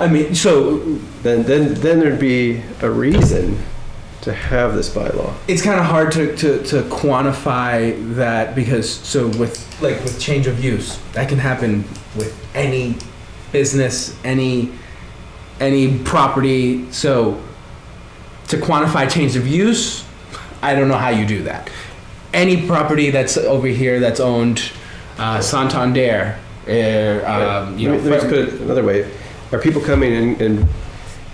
I mean, so Then, then, then there'd be a reason to have this bylaw. it's kind of hard to, to, to quantify that because so with like with change of use that can happen with any business any any property so to quantify change of use i don't know how you do that any property that's over here that's owned uh, santander eh, um, you know, let me, let me just put it another way. Are people coming in and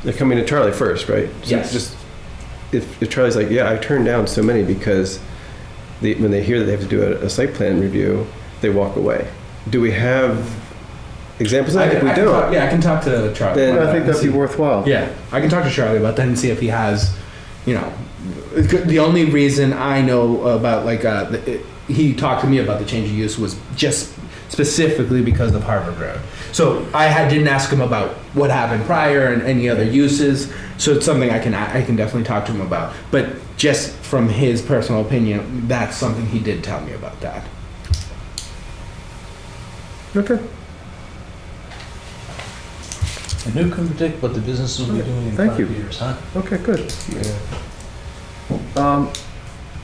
they're coming to Charlie first, right? So Yes. Just if, if Charlie's like, yeah, I turned down so many because they, when they hear that they have to do a, a site plan review, they walk away. Do we have examples? I, I think can- we I can don't. talk- yeah i can talk to charlie Then- about I think and that'd be see. worthwhile. Yeah, I can talk to Charlie about that and see if he has, you know, the only reason I know about like uh, the, it, he talked to me about the change of use was just specifically because of Harvard Road. So I had, didn't ask him about what happened prior and any other uses. So it's something I can I can definitely talk to him about. But just from his personal opinion, that's something he did tell me about that. Okay. And who can predict what the business will be doing in Thank five you. years, huh? Okay, good. Um,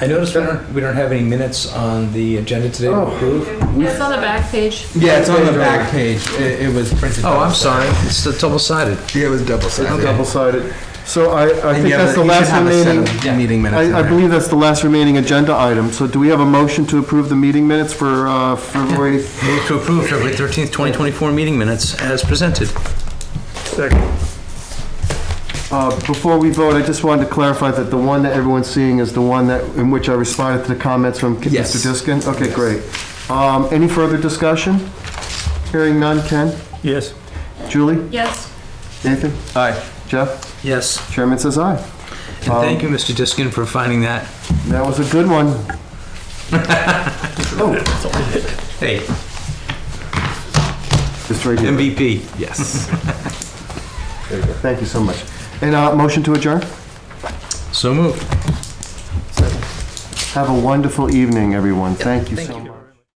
I noticed we don't, we don't have any minutes on the agenda today to Oh. approve. It's on the back page. Yeah, it's on the back page. It, it was printed. Oh, I'm sorry, it's double sided. Yeah, it was double it's double-sided. So I, I think that's the last remaining, meeting I, I believe that's the last remaining agenda item. So do we have a motion to approve the meeting minutes for, uh, February? Move to approve February 13th, 2024 meeting minutes as presented. Uh, before we vote, I just wanted to clarify that the one that everyone's seeing is the one that, in which I responded to the comments from Mr. Yes. Diskin? Okay, great. Um, any further discussion? Hearing none. Ken? Yes. Julie? Yes, Nathan? Aye. Jeff? Yes, Chairman says aye. and Um, thank you, Mr. Diskin, for finding that. That was a good one. Hey, Just right here. MVP. Yes. Thank you so much. And, uh, motion to adjourn? So moved. Have a wonderful evening, everyone. Thank you so much.